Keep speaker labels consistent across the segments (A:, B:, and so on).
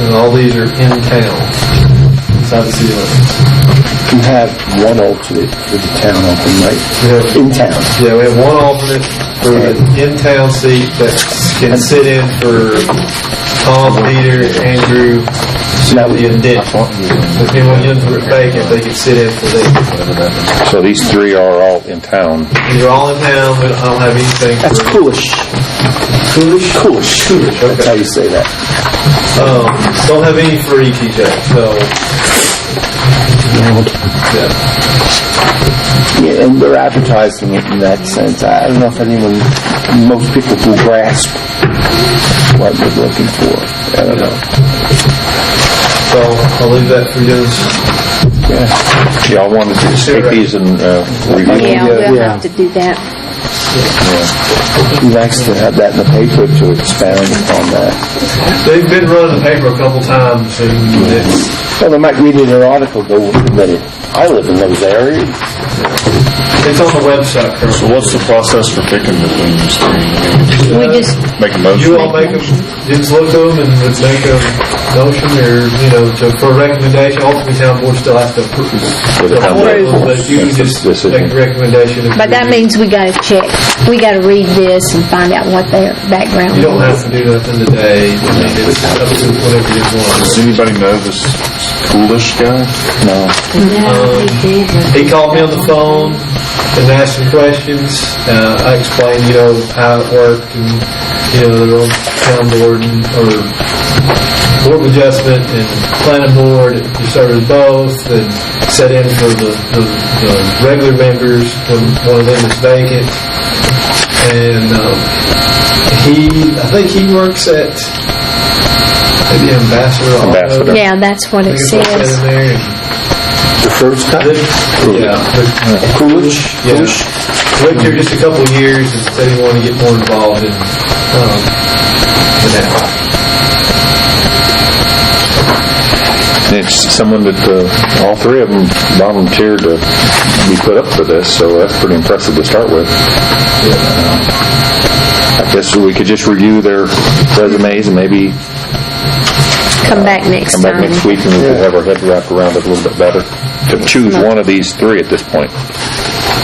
A: And all these are in towns, inside the city limits.
B: You have one alternate for the town open, right? In town.
A: Yeah, we have one alternate for the in-town seat that can sit in for Tom, Peter, Andrew, Shelby, and Dick. So if anyone else were vacant, they could sit in for them.
C: So these three are all in town.
A: These are all in town, but I don't have anything for...
B: That's coolish. Coolish? Coolish. That's how you say that.
A: Um, don't have any for ETJ, so... Yeah.
B: Yeah, and they're advertising it in that sense. I don't know if anyone, most people will grasp what they're looking for. I don't know.
A: So I'll leave that for you guys.
B: Yeah.
C: Y'all wanted to take these and uh, review?
B: Yeah,
D: Yeah, we'll
B: yeah.
D: have to do that.
B: It'd be nice to have that in the paper to expound upon that.
A: They've been running the paper a couple times, and it's...
B: Well, they might read it in an article, go, "Wait a minute, I live in those areas.
A: It's on the website
E: So
A: currently.
E: what's the process for picking between these three? I mean,
D: We just,
E: Make a motion?
A: You all make them, just look to them and would make a motion or, you know, to, for recommendation, ultimately town board still has to approve.
C: Approve.
A: But you can just make a recommendation. if
D: but
A: you-
D: that means we gotta check, we gotta read this and find out what their background
A: You don't
D: is.
A: have to do nothing today, I mean, it's up to whatever you
E: Does
A: want.
E: anybody know this coolish guy?
B: No.
A: He called me on the phone and asked some questions, uh, I explained, you know, how it worked and, you know, the town board and, or board of adjustment and planning board, you started both and set in for the, the, the regular members when one of them is vacant. And, um, he, I think he works at, maybe Ambassador. Auto.
C: Ambassador.
D: Yeah, that's what
A: I
D: it
A: think it's what's in
D: says.
A: there.
B: The first
A: And
B: time?
A: then- Yeah, but
B: Coolidge?
A: Yeah.
B: Coolidge?
A: lived here just a couple of years and said he wanted to get more involved in, um, in that.
C: And It's someone that, uh, all three of them volunteered to be put up for this, so that's pretty impressive to start with. I guess we could just review their resumes and maybe
D: Come back next
C: come back
D: time.
C: next week and we could have our head wrapped around it a little bit better. To choose one of these three at this point.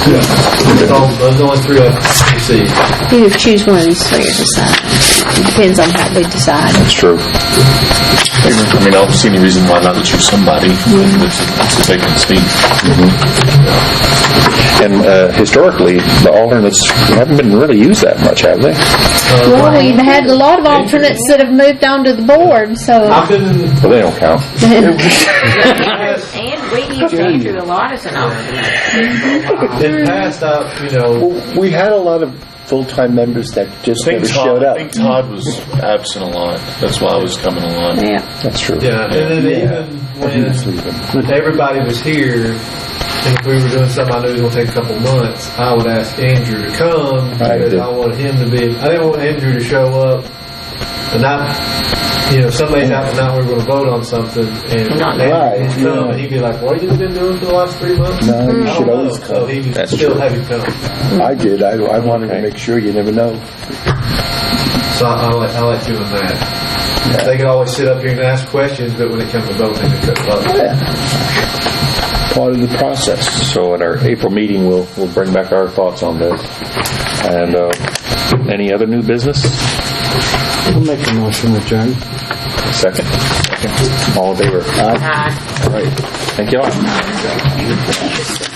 A: That's all- Those are the only three I've received.
D: Either choose one of these three or decide. It Depends on how we decide.
C: That's true.
E: I mean, I don't see any reason why not to choose somebody that's that's a vacant seat.
C: And uh, historically, the alternates haven't been really used that much, have they?
A: Uh,
D: Well, we've had a lot of alternates that have moved on to the board, so.
A: I've been
C: Well, they don't count.
F: And we used Andrew a lot as an alternate.
A: in the past. I, you know,
B: Well, we had a lot of full-time members that just never showed
E: I
B: up.
E: think Todd was absent a lot. That's why I was coming a lot.
D: Yeah,
B: That's true.
A: yeah, and then
B: Yeah.
A: even when everybody was here, and if we were doing something I knew was going to take a couple months, I would ask Andrew to come
B: Right.
A: because I wanted him to be. I didn't want Andrew to show up and not, you know, Sunday night and not we were going to vote on something and
F: Not
A: Andrew would
B: right,
A: come
B: yeah.
A: and he'd be like, "What have you been doing for the last three months?"
B: No, you
A: I
B: should
A: don't
B: always
A: know. So
B: come.
A: he would
C: That's
A: still
C: true.
A: have you come.
B: I did. I, I wanted to make sure. You never know.
A: So I, I, like, I like doing that. They could always sit up here and ask questions, but when it comes to voting, they couldn't vote.
B: Yeah. Part of the process.
C: So at our April meeting, we'll, we'll bring back our thoughts on this. And uh, any other new business? We'll make a motion, adjourn. Second. All in favor?
F: Aye.
C: All right. Thank you all.